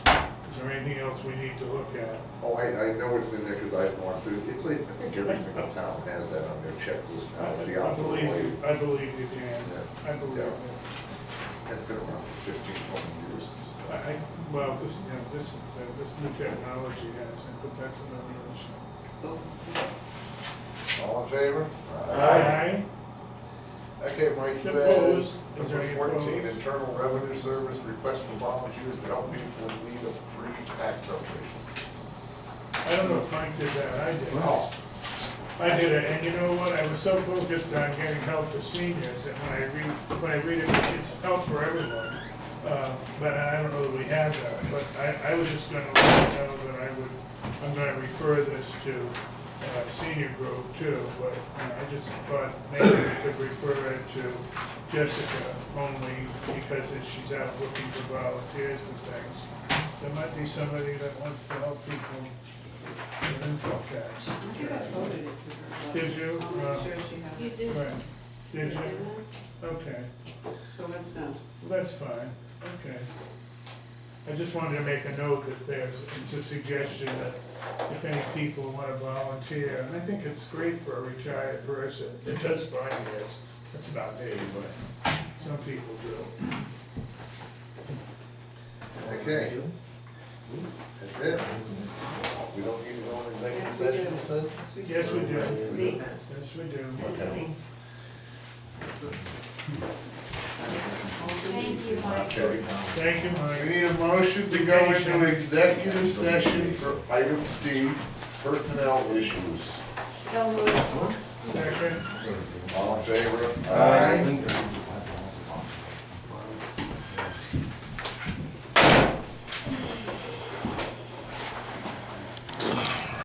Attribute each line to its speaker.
Speaker 1: there anything else we need to look at?
Speaker 2: Oh, I, I know it's in there because I've gone through, it's like, I think every single town has that on their checklist
Speaker 1: I
Speaker 2: now, the
Speaker 1: I
Speaker 2: optimal
Speaker 1: believe,
Speaker 2: way.
Speaker 1: you- I believe you can, I believe
Speaker 2: Yeah.
Speaker 1: you.
Speaker 2: That's been around for fifteen, twenty years.
Speaker 1: I, I, well, this, you know, this, uh, this new technology has, it, but that's another issue.
Speaker 2: All in favor?
Speaker 1: Aye.
Speaker 2: Okay, Mike, you had
Speaker 1: Opposed? Is there
Speaker 2: number
Speaker 1: any
Speaker 2: fourteen,
Speaker 1: opposed?
Speaker 2: Internal Revenue Service request for volunteers to help people lead a free tax operation.
Speaker 1: I don't know if Mike did that, I did.
Speaker 2: Wow.
Speaker 1: I did it, and you know what, I was so focused on getting help for seniors, that when I read, when I read it, it's help for everyone. Uh, But I don't know that we have that, but I, I was just gonna let you know that I would, I'm gonna refer this to uh, senior group too, but uh, I just thought maybe we could refer it to Jessica only because if she's out looking for volunteers for things. There might be somebody that wants to help people with info tax.
Speaker 3: I think I voted it to her.
Speaker 1: Did you? uh,
Speaker 3: I'll make sure she has
Speaker 4: You
Speaker 3: it.
Speaker 4: did. Hmm.
Speaker 1: Right, did you?
Speaker 4: Didn't I?
Speaker 1: Okay,
Speaker 3: So that's done.
Speaker 1: well, that's fine, okay. I just wanted to make a note that there's, it's a suggestion that if any people want to volunteer, and I think it's great for a retired person, it does find years, it's not me, but some people do.
Speaker 2: Okay. That's it. We don't need to go into executive session, you said?
Speaker 1: Yes, we do,
Speaker 4: See,
Speaker 1: yes, we do.
Speaker 4: see. Thank you, Mike.
Speaker 2: Okay.
Speaker 1: Thank you,
Speaker 2: We
Speaker 1: Mike.
Speaker 2: need a motion to go into executive session for item C, personnel issues.
Speaker 4: So moved.
Speaker 1: Second.
Speaker 2: All in favor? Aye.